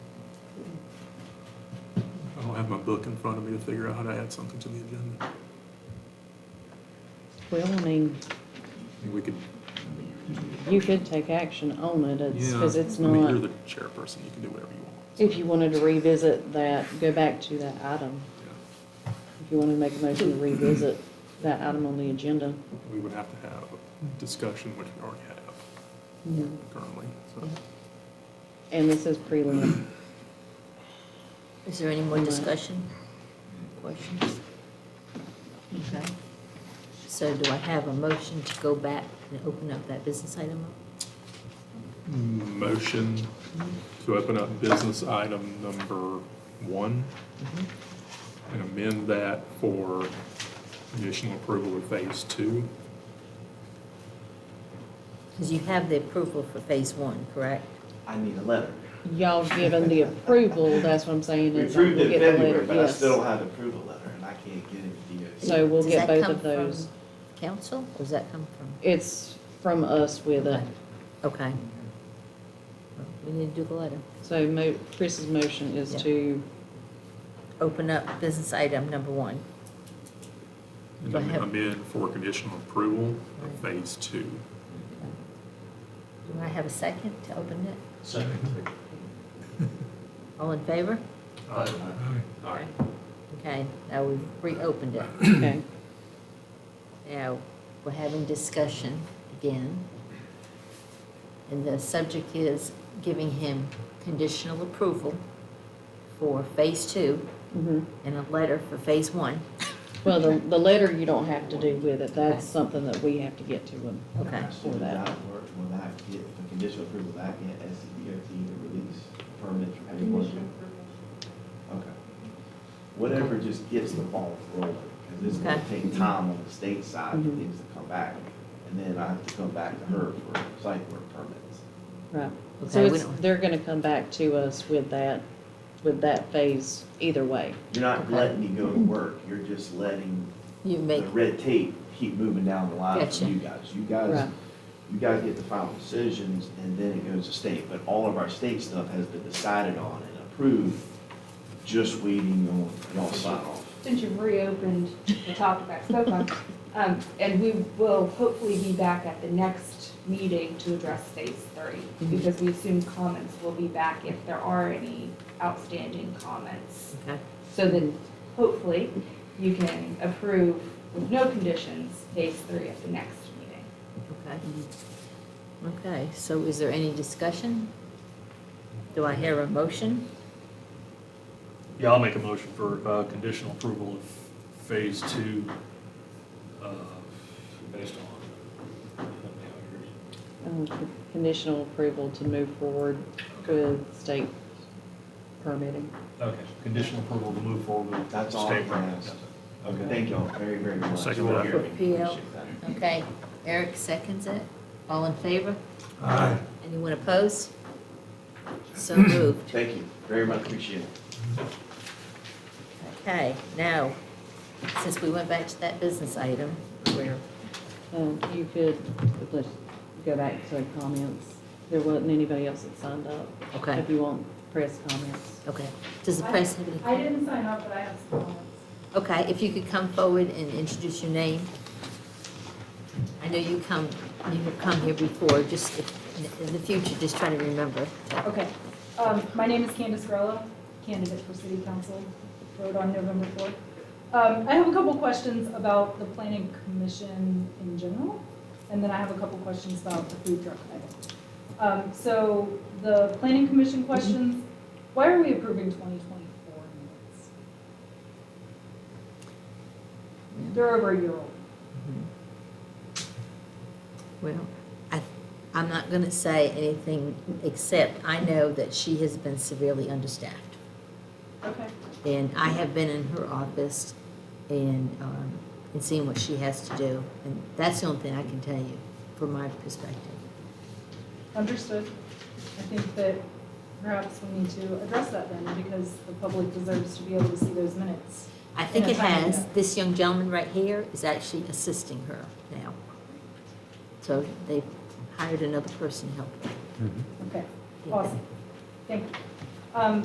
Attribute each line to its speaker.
Speaker 1: my book in front of me to figure out how to add something to the agenda.
Speaker 2: Well, I mean,
Speaker 1: We could,
Speaker 2: you could take action on it, it's,
Speaker 1: yeah,
Speaker 2: because it's
Speaker 1: I mean, you're
Speaker 2: not,
Speaker 1: the chairperson, you can do whatever you want.
Speaker 2: if you wanted to revisit that, go back to that item.
Speaker 1: Yeah.
Speaker 2: If you wanted to make a motion to revisit that item on the agenda.
Speaker 1: We would have to have a discussion, which we already have
Speaker 3: Mm-hmm.
Speaker 1: currently, so.
Speaker 2: And this is prelim.
Speaker 4: Is there any more
Speaker 2: Right.
Speaker 4: discussion? Questions? Okay. So do I have a motion to go back and open up that business item? up?
Speaker 1: Motion to open up business item number one
Speaker 2: Mm-hmm.
Speaker 1: and amend that for conditional approval of phase two.
Speaker 4: Because you have the approval for phase one, correct?
Speaker 3: I need a letter.
Speaker 2: Y'all given the approval, that's what I'm saying,
Speaker 3: We
Speaker 2: is
Speaker 3: approved
Speaker 2: we'll
Speaker 3: in
Speaker 2: get the
Speaker 3: February,
Speaker 2: letter,
Speaker 3: but I
Speaker 2: yes.
Speaker 3: still don't have the approval letter, and I can't get it to DOT.
Speaker 2: So we'll
Speaker 4: Does
Speaker 2: get
Speaker 4: that
Speaker 2: both
Speaker 4: come
Speaker 2: of those.
Speaker 4: from Council, or does that come from?
Speaker 2: It's from us with it,
Speaker 4: Okay. We need to do the letter.
Speaker 2: so mo, Chris's motion is
Speaker 4: Yeah.
Speaker 2: to,
Speaker 4: Open up business item number one.
Speaker 1: And
Speaker 4: Do I have-
Speaker 1: amend for conditional approval of phase two.
Speaker 4: Do I have a second to open it?
Speaker 3: Second.
Speaker 4: All in favor?
Speaker 1: Aye.
Speaker 4: Okay, now we've reopened it.
Speaker 2: okay,
Speaker 4: Now, we're having discussion again. And the subject is giving him conditional approval for phase two
Speaker 3: Mm-hmm.
Speaker 2: mhm.
Speaker 4: and a letter for phase one.
Speaker 2: Well, the, the letter you don't have to do with it, that's something that we have to get to them.
Speaker 4: Okay.
Speaker 3: So without work, will I get the conditional approval, will I get as the DOT to release permits from any work? Okay. Whatever just gets the ball rolling, because it's gonna
Speaker 4: Okay.
Speaker 3: take time on the state side for
Speaker 2: Mhm.
Speaker 3: things to come back. And then I have to come back to her for site work permits.
Speaker 2: Right, so
Speaker 4: Okay, we
Speaker 2: it's,
Speaker 4: don't,
Speaker 2: they're gonna come back to us with that, with that phase either way.
Speaker 3: You're not
Speaker 4: Okay.
Speaker 3: letting me go to work, you're just letting
Speaker 4: you
Speaker 3: the
Speaker 4: make,
Speaker 3: red tape keep moving down the line for
Speaker 4: Gotcha.
Speaker 3: you guys. You
Speaker 2: Right,
Speaker 3: guys, you guys get the final decisions, and then it goes to state, but all of our state stuff has been decided on and approved, just waiting on y'all sign off.
Speaker 5: Since you've reopened the topic I spoke on, um, and we will hopefully be back at the next meeting to address phase three, because we assume comments will be back if there are any outstanding comments.
Speaker 4: okay,
Speaker 5: So then hopefully you can approve with no conditions phase three at the next meeting.
Speaker 4: okay. Okay, so is there any discussion? Do I hear a motion?
Speaker 6: Yeah, I'll make a motion for uh, conditional approval of phase two, uh, based on.
Speaker 2: um, con- conditional approval to move forward with state permitting.
Speaker 6: Okay, conditional approval to move forward with.
Speaker 3: That's all
Speaker 6: state
Speaker 3: I'm
Speaker 6: permit.
Speaker 3: asking. Thank y'all very, very much.
Speaker 1: Second one.
Speaker 3: Appreciate
Speaker 4: PL.
Speaker 3: that.
Speaker 4: Okay, Eric seconds it. All in favor? Anyone opposed? So moved.
Speaker 3: Thank you, very much appreciate it.
Speaker 4: Okay, now, since we went back to that business item, where,
Speaker 2: Um, you could, let's go back to comments, there wasn't anybody else that signed up,
Speaker 4: okay,
Speaker 2: if you want press comments.
Speaker 4: okay. Does the press have any?
Speaker 7: I didn't sign up, but I have some comments.
Speaker 4: Okay, if you could come forward and introduce your name. I know you come, you have come here before, just if- in the future, just try to remember.
Speaker 7: Okay, um, my name is Candace Grella, candidate for city council, vote on November fourth. Um, I have a couple questions about the planning commission in general, and then I have a couple questions about the food truck item. Um, so the planning commission questions, why are we approving twenty twenty-four minutes? They're over a year old.
Speaker 4: Well, I, I'm not going to say anything, except I know that she has been severely understaffed.
Speaker 7: Okay.
Speaker 4: And I have been in her office and, um, and seen what she has to do. And that's the only thing I can tell you from my perspective.
Speaker 7: Understood. I think that perhaps we need to address that then, because the public deserves to be able to see those minutes.
Speaker 4: I think
Speaker 7: Yeah,
Speaker 4: it
Speaker 7: I know.
Speaker 4: has, this young gentleman right here is actually assisting her now. So they've hired another person to help.
Speaker 7: Okay,
Speaker 4: Yeah.
Speaker 7: awesome. Thank you. Um,